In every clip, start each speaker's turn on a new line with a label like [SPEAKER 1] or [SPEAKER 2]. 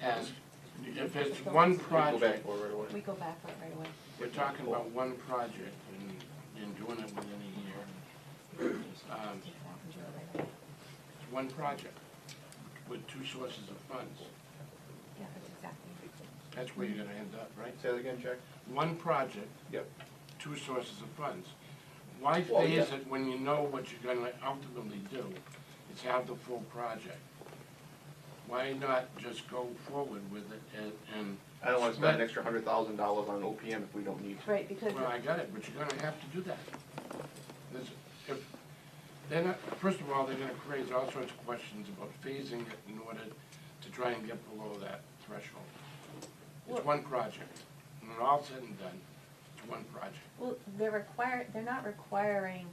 [SPEAKER 1] And if it's one
[SPEAKER 2] Go back
[SPEAKER 1] project,
[SPEAKER 2] for right away.
[SPEAKER 3] We go back up right away.
[SPEAKER 1] we're talking about one project and, and doing it within a year. Um, It's one project with two sources of funds.
[SPEAKER 3] Yeah, that's exactly.
[SPEAKER 1] That's where you're gonna end up, right?
[SPEAKER 2] Say that again, Jack?
[SPEAKER 1] One project,
[SPEAKER 2] Yep.
[SPEAKER 1] two sources of funds. Why
[SPEAKER 2] Well,
[SPEAKER 1] phase
[SPEAKER 2] yeah.
[SPEAKER 1] it when you know what you're gonna ultimately do is have the full project? Why not just go forward with it and, and,
[SPEAKER 2] I don't wanna spend an extra hundred thousand dollars on an OPM if we don't need to.
[SPEAKER 3] Right, because,
[SPEAKER 1] well, I got it, but you're gonna have to do that. There's, if, they're not, first of all, they're gonna create all sorts of questions about phasing it in order to try and get below that threshold. It's
[SPEAKER 3] Well-
[SPEAKER 1] one project, and when all said and done, it's one project.
[SPEAKER 3] well, they're require, they're not requiring,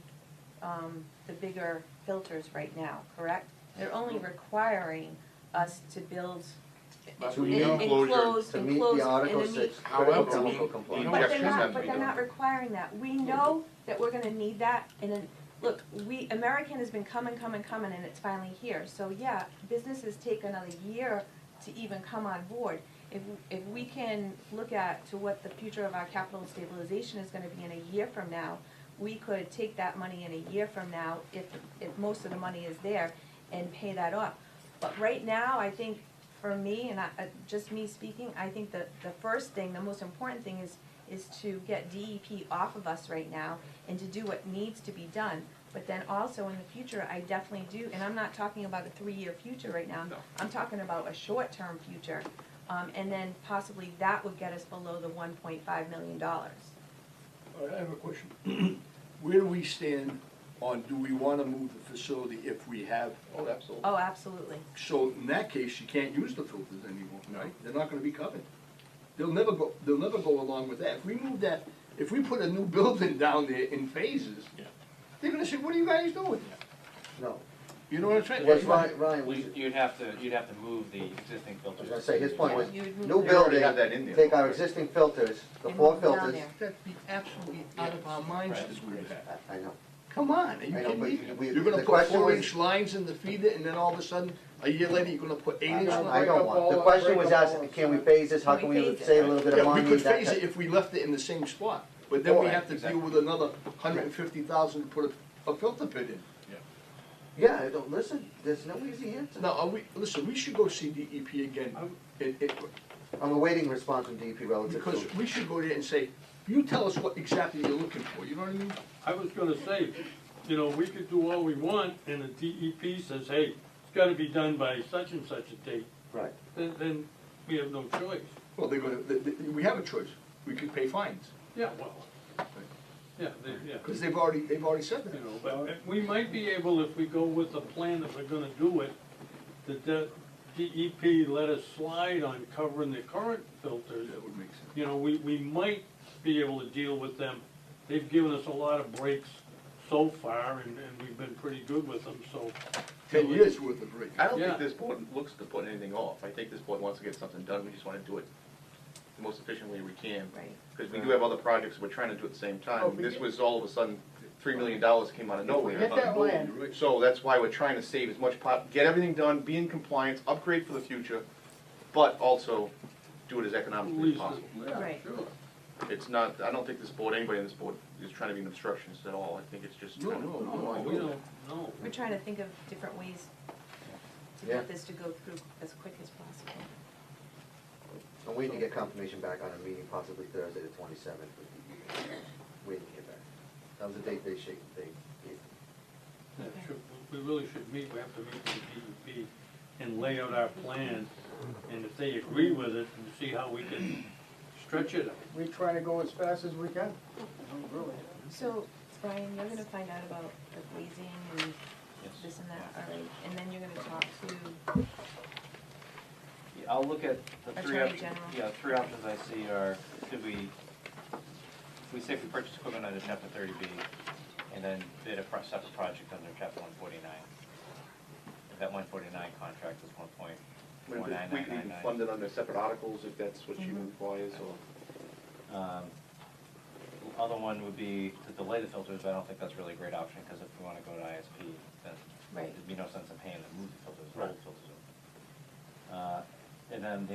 [SPEAKER 3] um, the bigger filters right now, correct? They're only requiring us to build,
[SPEAKER 1] But
[SPEAKER 4] To
[SPEAKER 1] we
[SPEAKER 4] meet-
[SPEAKER 1] know-
[SPEAKER 3] Enclosed-
[SPEAKER 4] To meet
[SPEAKER 3] enclosed
[SPEAKER 4] the Article
[SPEAKER 3] and meet-
[SPEAKER 4] Six
[SPEAKER 1] However,
[SPEAKER 4] critical chemical
[SPEAKER 1] we- you know
[SPEAKER 4] compliance.
[SPEAKER 3] but they're
[SPEAKER 1] what-
[SPEAKER 3] not, but they're not requiring that. We know that we're gonna need that, and then, look, we, American has been coming, coming, coming, and it's finally here. So, yeah, businesses take another year to even come on board. If, if we can look at to what the future of our capital stabilization is gonna be in a year from now, we could take that money in a year from now, if, if most of the money is there, and pay that off. But right now, I think, for me, and I, uh, just me speaking, I think that the first thing, the most important thing is, is to get DEP off of us right now and to do what needs to be done. But then also in the future, I definitely do, and I'm not talking about a three-year future right now.
[SPEAKER 2] No.
[SPEAKER 3] I'm talking about a short-term future. Um, and then possibly that would get us below the one point five million dollars.
[SPEAKER 5] All right, I have a question. Where do we stand on, do we wanna move the facility if we have?
[SPEAKER 2] Oh, absolutely.
[SPEAKER 3] Oh, absolutely.
[SPEAKER 5] So in that case, you can't use the filters anymore,
[SPEAKER 1] No.
[SPEAKER 5] right? They're not gonna be covered. They'll never go, they'll never go along with that. If we move that, if we put a new building down there in phases,
[SPEAKER 1] Yeah.
[SPEAKER 5] they're gonna say, what are you guys doing?
[SPEAKER 4] No,
[SPEAKER 1] You know what I'm saying?
[SPEAKER 4] was Ryan, Ryan, was
[SPEAKER 6] We, you'd have to, you'd have to move the existing
[SPEAKER 4] I was
[SPEAKER 6] filters.
[SPEAKER 4] gonna say, his point was,
[SPEAKER 3] You would move
[SPEAKER 4] new
[SPEAKER 2] They already
[SPEAKER 4] building,
[SPEAKER 2] have that in there.
[SPEAKER 4] take our existing filters, the
[SPEAKER 3] And
[SPEAKER 4] four
[SPEAKER 3] move down
[SPEAKER 4] filters.
[SPEAKER 3] there.
[SPEAKER 5] That'd be absolutely out of our minds
[SPEAKER 6] Right.
[SPEAKER 5] to do that.
[SPEAKER 4] I- I know,
[SPEAKER 5] Come on, are you
[SPEAKER 4] I know,
[SPEAKER 5] kidding
[SPEAKER 4] but
[SPEAKER 5] me?
[SPEAKER 4] we-
[SPEAKER 5] You're gonna
[SPEAKER 4] the
[SPEAKER 5] put
[SPEAKER 4] question was-
[SPEAKER 5] four-inch lines in the feeder, and then all of a sudden, a year later, you're gonna put
[SPEAKER 4] I
[SPEAKER 5] eight-inch
[SPEAKER 4] don't,
[SPEAKER 5] lines?
[SPEAKER 4] I don't want, the question was asked, can we phase this, how can we save a little bit of
[SPEAKER 5] Yeah, we
[SPEAKER 4] money?
[SPEAKER 5] could
[SPEAKER 4] that
[SPEAKER 5] phase
[SPEAKER 4] type-
[SPEAKER 5] it if we left it in the same spot, but then we
[SPEAKER 4] Right,
[SPEAKER 5] have to deal
[SPEAKER 6] exactly.
[SPEAKER 5] with another hundred and fifty thousand to put a, a filter pit in.
[SPEAKER 4] Yeah, I don't, listen, there's no easy answer.
[SPEAKER 5] Now, are we, listen, we should go see DEP again, it, it,
[SPEAKER 4] I'm awaiting response from DEP relative
[SPEAKER 5] because
[SPEAKER 4] to,
[SPEAKER 5] we should go there and say, you tell us what exactly you're looking for, you know what I mean?
[SPEAKER 7] I was gonna say, you know, we could do all we want, and the DEP says, hey, it's gotta be done by such and such a date,
[SPEAKER 4] right,
[SPEAKER 7] then, then we have no choice.
[SPEAKER 5] Well, they're gonna, they, they- we have a choice, we could pay fines,
[SPEAKER 7] Yeah, well, yeah, they, yeah,
[SPEAKER 5] because they've already, they've already said
[SPEAKER 7] you
[SPEAKER 5] that.
[SPEAKER 7] know, but we might be able, if we go with the plan that we're gonna do it, the de- DEP let us slide on covering the current filters,
[SPEAKER 5] That would make sense.
[SPEAKER 7] you know, we, we might be able to deal with them. They've given us a lot of breaks so far, and, and we've been pretty good with them, so.
[SPEAKER 5] Ten years worth of rate.
[SPEAKER 2] I don't
[SPEAKER 7] Yeah.
[SPEAKER 2] think this board looks to put anything off. I think this board wants to get something done. We just wanna do it the most efficient way we can.
[SPEAKER 3] Right.
[SPEAKER 2] Because we do have other projects we're trying to do at the same
[SPEAKER 5] Oh,
[SPEAKER 2] time.
[SPEAKER 5] we
[SPEAKER 2] This
[SPEAKER 5] get-
[SPEAKER 2] was all of a sudden, three million dollars came out of nowhere.
[SPEAKER 5] Get that land.
[SPEAKER 2] So that's why we're trying to save as much pot, get everything done, be in compliance, upgrade for the future, but also do it as economically as
[SPEAKER 7] Least,
[SPEAKER 2] possible.
[SPEAKER 7] yeah,
[SPEAKER 3] Right.
[SPEAKER 7] sure.
[SPEAKER 2] It's not, I don't think this board, anybody on this board is trying to be an obstructionist at all. I think it's just.
[SPEAKER 5] No, no, no, I
[SPEAKER 7] No, we
[SPEAKER 5] don't.
[SPEAKER 7] don't, no.
[SPEAKER 3] We're trying to think of different ways to
[SPEAKER 4] Yeah.
[SPEAKER 3] get this to go through as quick as possible.
[SPEAKER 4] I'm waiting to get confirmation back on a meeting possibly Thursday the twenty-seventh with DEP. Waiting to hear back. That was the date they shake, they gave.
[SPEAKER 7] Yeah, should- We really should meet, we have to meet with the DEP and lay out our plan, and if they agree with it, and see how we can stretch it.
[SPEAKER 8] We try to go as fast as we can. Really.
[SPEAKER 3] So, Brian, you're gonna find out about the glazing and
[SPEAKER 6] Yes.
[SPEAKER 3] this and that, all right, and then you're gonna talk to,
[SPEAKER 6] Yeah, I'll look at the three
[SPEAKER 3] Attorney
[SPEAKER 6] options.
[SPEAKER 3] General.
[SPEAKER 6] Yeah, three options I see are, could we, if we say if we purchase equipment under chapter thirty B, and then bid a pro- separate project under chapter one forty-nine. That one forty-nine contract is one point
[SPEAKER 2] We
[SPEAKER 6] one nine
[SPEAKER 2] we
[SPEAKER 6] nine
[SPEAKER 2] can
[SPEAKER 6] nine
[SPEAKER 2] even
[SPEAKER 6] nine.
[SPEAKER 2] fund it under separate articles if that's what you requires or.
[SPEAKER 6] Um, the Other one would be to delay the filters, but I don't think that's really a great option, because if we want to go to ISP, then
[SPEAKER 3] Right.
[SPEAKER 6] there'd be no sense in paying to move the filters, roll the filters over. Uh, And then the